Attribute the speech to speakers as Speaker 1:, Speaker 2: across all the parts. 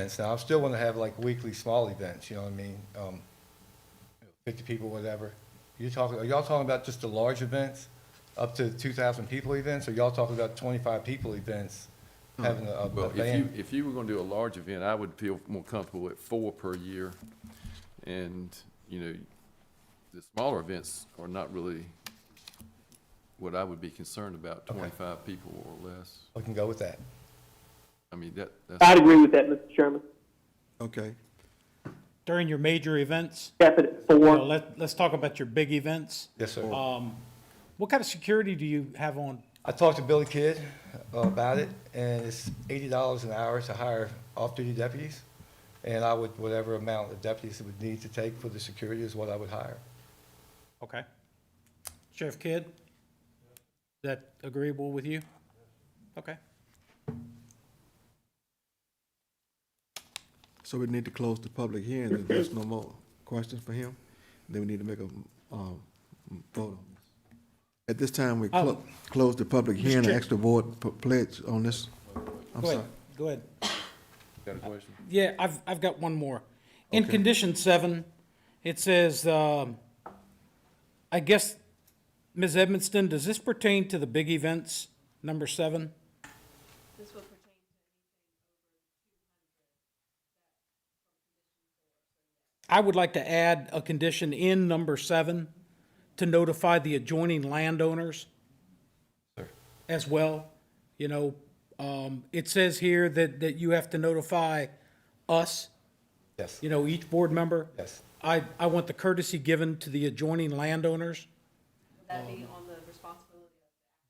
Speaker 1: events. Now, I still want to have like weekly small events, you know what I mean? Um, fifty people, whatever. You're talking, are y'all talking about just the large events, up to two thousand people events? Or y'all talking about twenty-five people events, having a, a a
Speaker 2: Hmm. Well, if you,
Speaker 1: band?
Speaker 2: if you were gonna do a large event, I would feel more comfortable at four per year. And, you know, the smaller events are not really what I would be concerned about,
Speaker 1: Okay.
Speaker 2: twenty-five people or less.
Speaker 1: We can go with that.
Speaker 2: I mean, that, that's,
Speaker 3: I'd agree with that, Mr. Chairman.
Speaker 4: Okay,
Speaker 5: during your major events,
Speaker 3: Cap it at
Speaker 5: you know,
Speaker 3: four.
Speaker 5: let, let's talk about your big events. Um,
Speaker 1: Yes, sir.
Speaker 5: What kind of security do you have on?
Speaker 1: I talked to Billy Kidd uh, about it, and it's eighty dollars an hour to hire off-duty deputies. And I would, whatever amount of deputies it would need to take for the security is what I would hire.
Speaker 5: Okay. Sheriff Kidd? Is that agreeable with you? Okay.
Speaker 4: so we need to close the public hearing if there's no more questions for him. Then we need to make a, um, vote on this. At this time, we clo-
Speaker 5: Oh.
Speaker 4: close the public hearing and
Speaker 5: Chair.
Speaker 4: ask the board p- pledge on this. I'm
Speaker 5: Go
Speaker 4: sorry.
Speaker 5: ahead, go ahead. Uh,
Speaker 2: got a question?
Speaker 5: Yeah, I've, I've got one more. In condition seven, it says, um, I guess, Ms. Edmiston, does this pertain to the big events, number seven? I would like to add a condition in number seven to notify the adjoining landowners as well. You know, um, it says here that, that you have to notify us,
Speaker 1: Yes,
Speaker 5: you know, each board member.
Speaker 1: yes.
Speaker 5: I, I want the courtesy given to the adjoining landowners
Speaker 6: That'd be on the responsibility.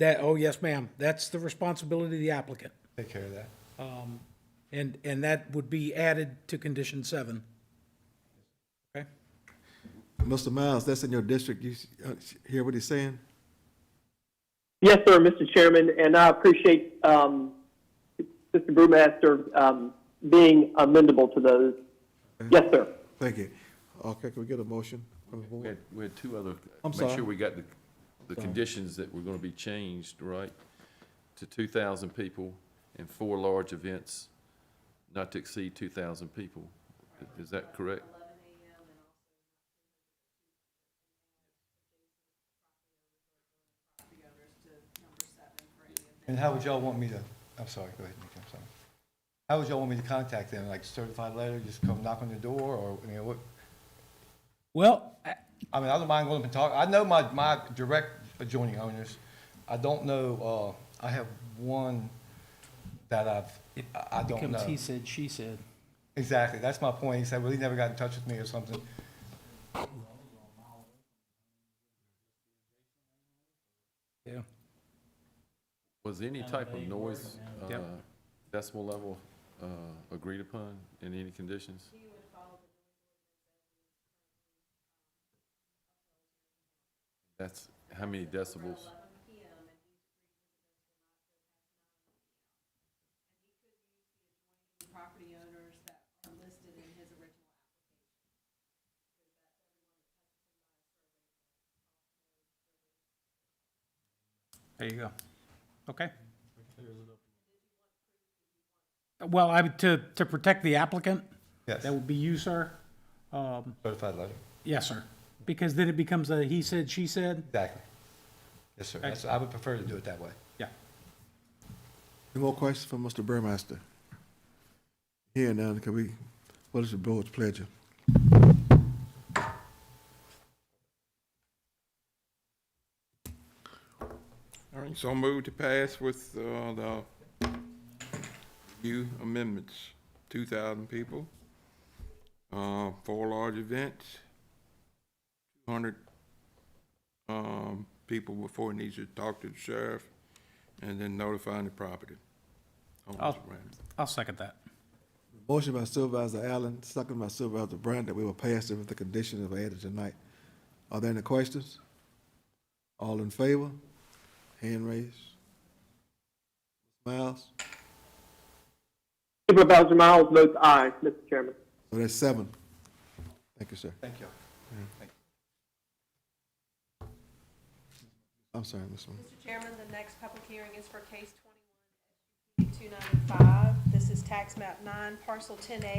Speaker 5: that, oh, yes, ma'am, that's the responsibility of the applicant. Um,
Speaker 1: Take care of that.
Speaker 5: And, and that would be added to condition seven. Okay?
Speaker 4: Mr. Miles, that's in your district. You s- uh, hear what he's saying?
Speaker 3: Yes, sir, Mr. Chairman, and I appreciate, um, Mr. Brewmaster, um, being amendable to those. Yes, sir.
Speaker 4: Thank you. Okay, can we get a motion from the
Speaker 2: We
Speaker 4: board?
Speaker 2: had, we had two other,
Speaker 4: I'm
Speaker 2: make
Speaker 4: sorry.
Speaker 2: sure we got the, the conditions that were gonna be changed, right? To two thousand people and four large events, not to exceed two thousand people. Is that correct?
Speaker 1: And how would y'all want me to, I'm sorry, go ahead, Nick, I'm sorry. How would y'all want me to contact them, like certified letter, just come knock on the door, or, I mean, what,
Speaker 5: Well, I-
Speaker 1: I mean, I don't mind going up and talk, I know my, my direct adjoining owners. I don't know, uh, I have one that I've, I- I don't
Speaker 5: comes
Speaker 1: know.
Speaker 5: he said, she said.
Speaker 1: Exactly, that's my point, he said, well, he never got in touch with me or something.
Speaker 5: Yeah.
Speaker 2: Was any type of noise, uh,
Speaker 5: Yep.
Speaker 2: decimal level, uh, agreed upon in any conditions? That's, how many decibels?
Speaker 6: Property owners that are listed in his original.
Speaker 5: There you go. Okay. Well, I, would- to, to protect the applicant,
Speaker 1: Yes,
Speaker 5: that would be you, sir. Um,
Speaker 1: certified letter,
Speaker 5: Yes, sir. Because then it becomes a he said, she said.
Speaker 1: exactly. Yes, sir, that's, I would prefer to do it that way.
Speaker 5: Yeah.
Speaker 4: Any more questions from Mr. Burmaster? Here now, can we, what is the board's pleasure?
Speaker 7: All right, so move to pass with uh, the few amendments, 2,000 people, uh, four large events, 200 um, people before it needs to talk to the sheriff, and then notifying the property. owners
Speaker 5: I'll-
Speaker 7: around.
Speaker 5: I'll second that.
Speaker 4: Motion by Supervisor Allen, second by Supervisor Brown, that we will pass it with the conditions of added tonight. Are there any questions? All in favor? Hand raised. Miles?
Speaker 3: Supervisor Miles votes aye, Mr. Chairman.
Speaker 4: So that's seven. Thank you, sir.
Speaker 1: Thank you.
Speaker 4: I'm sorry, Mr. Miles.
Speaker 6: Mr. Chairman, the next public hearing is for case twenty-one,
Speaker 8: 295. This is tax map 9, parcel 10A,